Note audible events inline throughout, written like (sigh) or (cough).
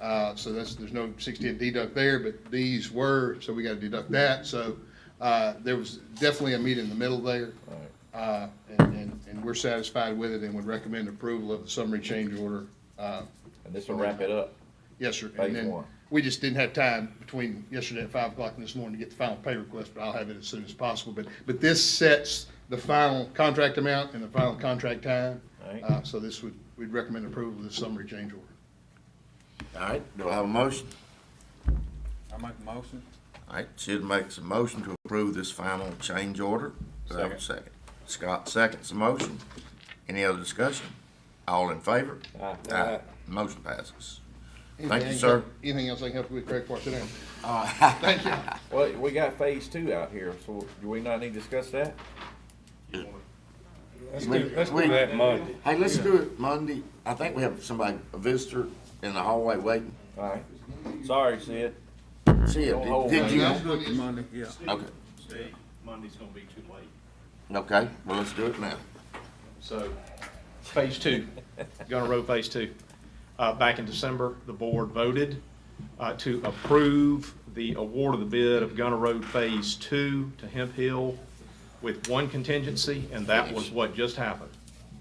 Uh, so that's, there's no sixty-eight deduct there, but these were, so we gotta deduct that, so, uh, there was definitely a meet in the middle there. Uh, and, and, and we're satisfied with it and would recommend approval of the summary change order, uh, And this will wrap it up. Yes, sir. Phase And then one. we just didn't have time between yesterday at five o'clock and this morning to get the final pay request, but I'll have it as soon as possible. But, but this sets the final contract amount and the final contract time. Alright. Uh, so this would, we'd recommend approval of this summary change order. All right, do I have a motion? I make a motion. All right, Sid makes a motion to approve this final change order. Do I have a second? Scott seconds the motion. Any other discussion? All in favor? Aye. Ah. Motion passes. Anything Thank I you, can sir. help- Anything else I can help you with, Craig, for today? Thank you. Well, we got phase two out here, so do we not need to discuss that? Let's We- do, let's we- do that Monday. (laughs) Hey, let's do it Monday. I think we have somebody, a visitor in the hallway waiting. All right. Sorry, Sid. See Don't you. hold Did me. you? No. Monday, yeah. Okay, Steve, Monday's gonna be too late. okay, well, let's do it now. So, phase two, Gunner Road Phase Two. Uh, back in December, the board voted, uh, to approve the award of the bid of Gunner Road Phase Two to Hemp Hill with one contingency, and that was what just happened,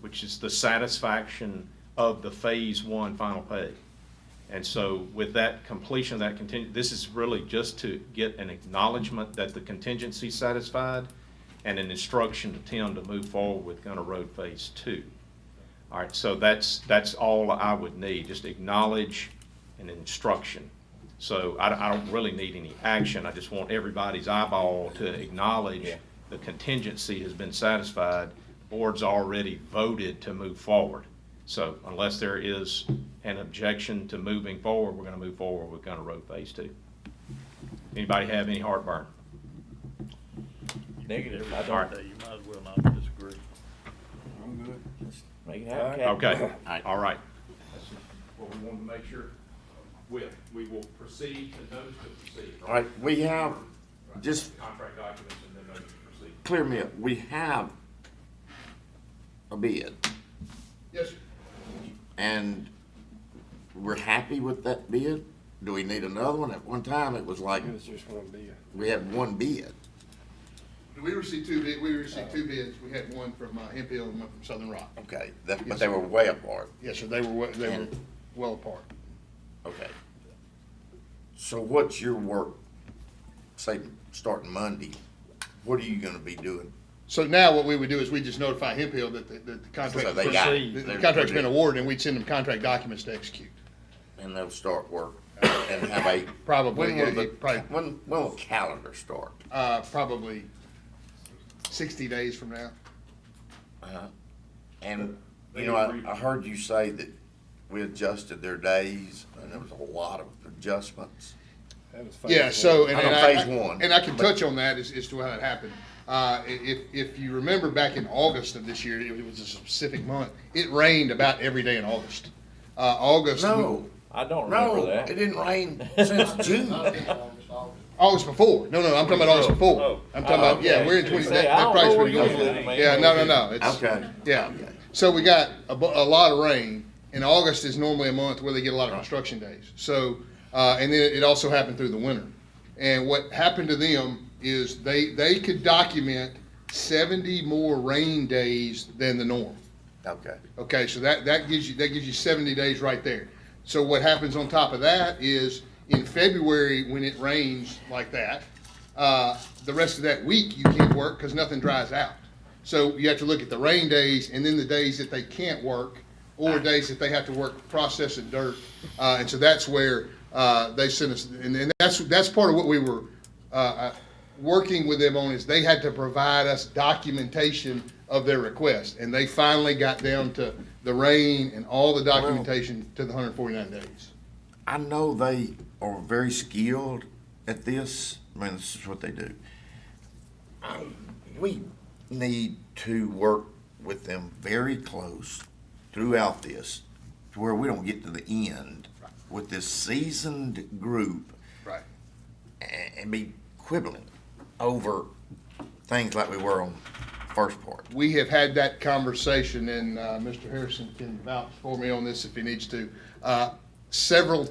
which is the satisfaction of the Phase One final pay. And so with that completion, of that contingent, this is really just to get an acknowledgement that the contingency's satisfied and an instruction to Tim to move forward with Gunner Road Phase Two. All right, so that's, that's all I would need, just acknowledge and instruction. So I, don't- I don't really need any action, I just want everybody's eyeball to acknowledge Yeah. the contingency has been satisfied, board's already voted to move forward. So unless there is an objection to moving forward, we're gonna move forward with Gunner Road Phase Two. Anybody have any heartburn? Negative. I All don't. right, You might as well not disagree. I'm good. Make it happen, Cap. okay, right. all right. That's what we wanted to make sure with. We will proceed to those to proceed. All right, we have, just Contract documents and then those to proceed. clear me up, we have a bid, Yes, sir. and we're happy with that bid? Do we need another one? At one time, it was like, It was just one deal. we had one bid. We received two bid, we received two bids. We had one from, uh, Hemp Hill and one from Southern Rock. Okay, that, but they were way apart, Yes, sir, they were, we- they were And- well apart. okay. So what's your work, say, starting Monday, what are you gonna be doing? So now what we would do is we just notify Hemp Hill that the, that the contract, So they got it. the- the They're- contract's been awarded, and we'd send them contract documents to execute. And they'll start work and have a. Probably, When will yeah, the, probably- when, when will calendar start? Uh, probably sixty days from now. Uh-huh. And, you know, I, I heard you say that we adjusted their days, and there was a lot of adjustments. That was phase Yeah, so, one. and, I'm and on I, phase one. and I can touch on that as, as to how that happened. Uh, i- if, if you remember back in August of this year, it was a specific month, it rained about every day in August. Uh, August, No, I don't remember no, that. it (laughs) didn't rain since June. August before, no, no, I'm talking about Oh, August before. I'm talking about, yeah, we're in twenty, See, that, I that don't price know would where you live, go. man. Yeah, no, no, no, it's, Okay, yeah. So we got a, bu- a lot of rain, and August is normally a month where they get a lot of construction days. So, uh, and then it also happened through the winter. And what happened to them is they, they could document seventy more rain days than the norm. okay. Okay, so that, that gives you, that gives you seventy days right there. So what happens on top of that is in February, when it rains like that, uh, the rest of that week you can't work because nothing dries out. So you have to look at the rain days and then the days that they can't work or days that they have to work processing dirt. Uh, and so that's where, uh, they sent us, and, and that's, that's part of what we were, uh, uh, working with them on is they had to provide us documentation of their request. And they finally got down to the rain and all the documentation to the hundred forty-nine days. I know they are very skilled at this. I mean, this is what they do. I- we need to work with them very close throughout this to where we don't get to the end with this seasoned group Right. and, and be quibbling over things like we were on first part. we have had that conversation, and uh, Mr. Harrison can vouch for me on this if he needs to, uh, several